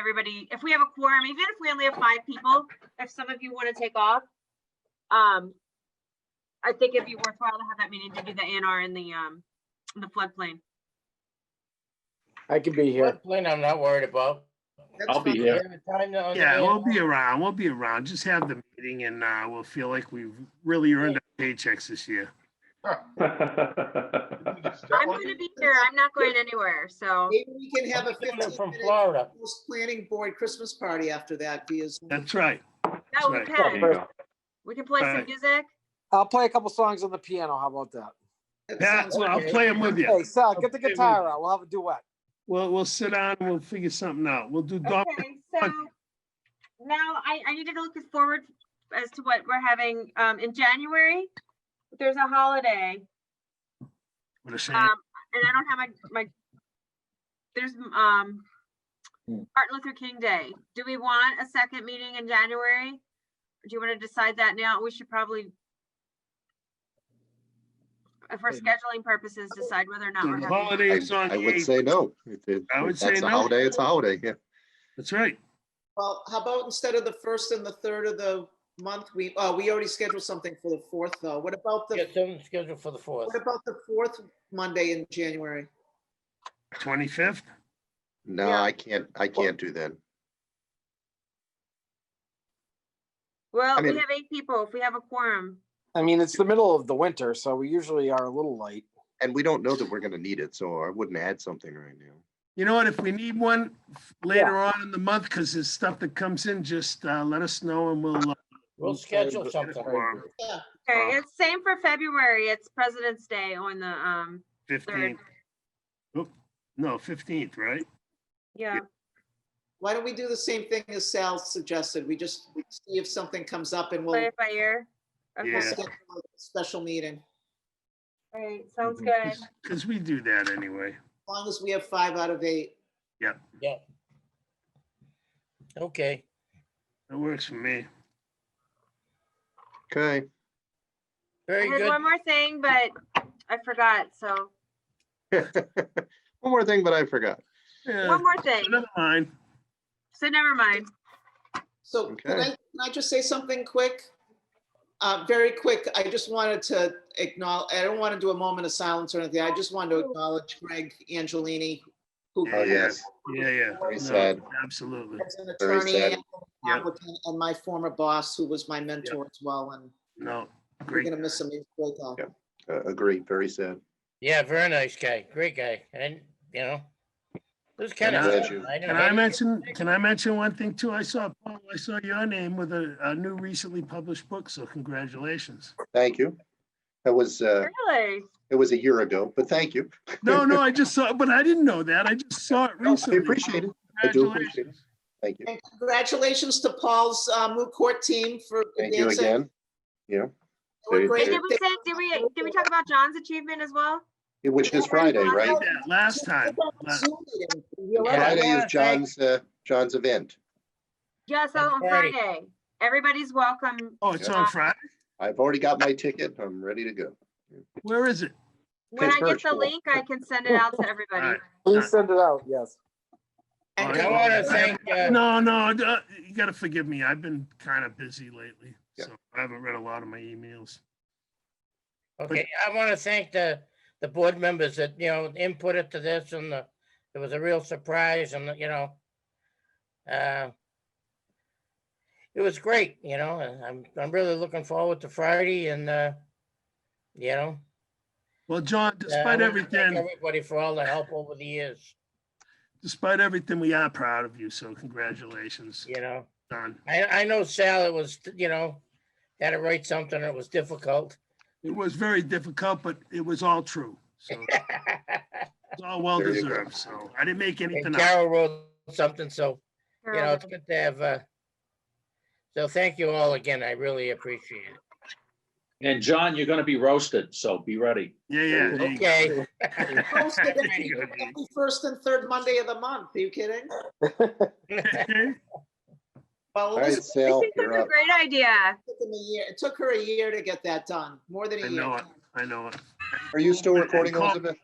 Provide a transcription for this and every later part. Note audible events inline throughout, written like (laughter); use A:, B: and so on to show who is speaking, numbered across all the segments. A: everybody, if we have a quorum, even if we only have five people, if some of you want to take off, um, I think it'd be worthwhile to have that meeting to do the ANR in the, um, the floodplain.
B: I can be here.
C: Floodplain, I'm not worried about.
D: I'll be
C: We
D: here.
C: have a time to
E: Yeah, we'll
C: understand.
E: be around, we'll be around. Just have the meeting and uh, we'll feel like we've really earned our paychecks this year.
A: I'm going to be here. I'm not going anywhere, so.
F: Maybe we can have a
C: I'm doing it From
F: 15-minute
C: Florida.
F: planning board Christmas party after that via Zoom.
E: That's right.
A: No, we
E: right.
A: can.
B: you
A: We can play some
E: Alright.
A: music.
B: I'll play a couple songs on the piano. How about that?
F: That
E: Yeah,
F: sounds
E: well, I'll
F: okay.
E: play them with
B: Hey,
E: you.
B: Sal, get the
E: Okay, we-
B: guitar out. We'll have a duet.
E: We'll, we'll sit down and we'll figure something out. We'll do dog.
A: Okay, Um, so now I, I need to look forward as to what we're having, um, in January. There's a holiday,
E: what a shame.
A: um, and I don't have my, my, there's, um, Martin Luther King Day. Do we want a second meeting in January? Do you want to decide that now? We should probably, uh, for scheduling purposes, decide whether or not we're
E: The
A: having.
E: holiday
G: I
E: is on
G: I
E: the
G: would
E: eighth.
G: say no. If it-
E: I would
G: if
E: say
G: that's a
E: no.
G: holiday, it's a holiday, yeah.
E: That's right.
F: Well, how about instead of the first and the third of the month, we, oh, we already scheduled something for the fourth, though. What about the,
C: Get something scheduled for the fourth.
F: what about the fourth Monday in January?
E: Twenty-fifth?
G: No,
A: Yeah.
G: I can't, I can't do that.
A: Well, we
G: mean-
A: have eight people. If we have a quorum.
B: I mean, it's the middle of the winter, so we usually are a little late.
G: And we don't know that we're gonna need it, so I wouldn't add something right now.
E: You know what? If we need one later on in the month, because there's stuff that comes in, just uh, let us know and we'll. uh,
C: We'll schedule something.
A: Okay,
E: Uh,
A: it's same for February. It's President's Day on the, um,
E: Fifteenth. No, fifteenth, right?
A: yeah,
F: Why don't we do the same thing as Sal suggested? We just see if something comes up and
A: play
F: we'll
A: it by ear. Okay,
F: we'll
E: Yeah.
F: schedule a special meeting, as
A: all right, sounds good.
E: Because we do that anyway.
F: long as we have five out of eight.
C: Yeah. Okay,
E: That works for me.
G: Okay, (laughs)
C: very
A: I had
C: good.
A: one more thing, but I forgot, so,
G: one more thing, but I forgot.
E: Yeah,
A: one more thing,
E: never mind.
A: so never mind.
F: So can
G: Okay.
F: I, can I just say something quick? Uh, very quick, I just wanted to acknowledge, I don't want to do a moment of silence or anything. I just wanted to acknowledge Greg Angelini, who
E: Yeah,
G: Oh,
E: yeah.
G: yes,
E: Yeah, yeah.
G: Very
E: No,
G: sad.
E: Absolutely.
F: is an
G: Very
F: attorney
G: sad.
F: and an
E: Yeah.
F: applicant, and my former boss, who was my mentor as well, and
E: No,
F: we're
E: great.
F: gonna miss him. He's a great guy.
G: Yeah. uh, agreed, very sad.
C: Yeah, very nice guy, great guy, and, you know. It was kind of.
E: Can I- Can I
C: I
E: mention, can I mention one thing too? I saw, Paul, I saw your name with a, a new recently published book, so congratulations.
G: Thank you. That was, uh,
A: Really?
G: it was a year ago, but thank you.
E: No, no, I just saw, but I didn't know that. I just saw it
G: (laughs) No, I
E: recently.
G: appreciate it. I do appreciate it.
E: Congratulations.
G: Thank you.
F: And congratulations to Paul's uh, moot court team for
G: Thank you
F: advancing.
G: again. Yeah,
F: They were
A: Wait,
G: Very
F: great.
A: did we say, did we, did we talk about John's achievement as well?
G: which is Friday,
E: I
G: right?
E: did that Last time. La-
F: Zoom meeting. You're
C: Yeah.
F: right.
G: Friday is
C: Thank-
G: John's, uh, John's event.
A: Yes, on
C: Friday.
A: Friday. Everybody's welcome.
E: Oh, it's on Friday?
G: I've already got my ticket. I'm ready to go.
E: Where is it?
A: When I get the
G: virtual.
A: link, I can send it out to everybody.
E: Alright.
B: Please send it out, yes.
E: All
C: I
E: right.
C: want to thank, uh,
E: No, no, uh, you gotta forgive me. I've been kind of busy lately,
G: Yeah.
E: so I haven't read a lot of my emails.
C: Okay, I want to thank the, the board members that, you know, inputted to this and the, it was a real surprise and, you know. uh, It was great, you know, and I'm, I'm really looking forward to Friday and, uh, you know.
E: Well, John,
C: uh, I
E: despite
C: wanna thank
E: everything,
C: Everybody for all the help over the years,
E: despite everything, we are proud of you, so congratulations,
C: you know.
E: John.
C: I, I know Sal, it was, you know, had to write something, it was difficult. (laughs)
E: It was very difficult, but it was all true. So it's all well
G: There you go.
E: deserved. So I didn't make anything
C: And
E: up.
C: Carol wrote something, so you know, it's good to have, uh, so thank you all again. I really appreciate it.
D: And John, you're gonna be roasted, so be ready.
E: Yeah, yeah. there you go.
C: Okay,
E: (laughs) There you go, dude.
F: Every First and third Monday of the month. Are you kidding?
C: (laughs)
F: Well,
G: All
F: it
G: right,
F: was- it
A: I
G: Sal,
A: think that's
G: you're
A: a
G: up.
A: great idea.
F: took them a year, it took her a year to get that done, more than
E: I
F: a
E: know
F: year.
E: it. I know it.
G: Are you still recording,
E: Call-
G: Elizabeth?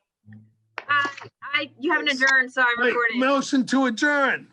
A: Uh, I, you haven't adjourned, so I'm
E: Wait,
A: recording.
E: motion to adjourn.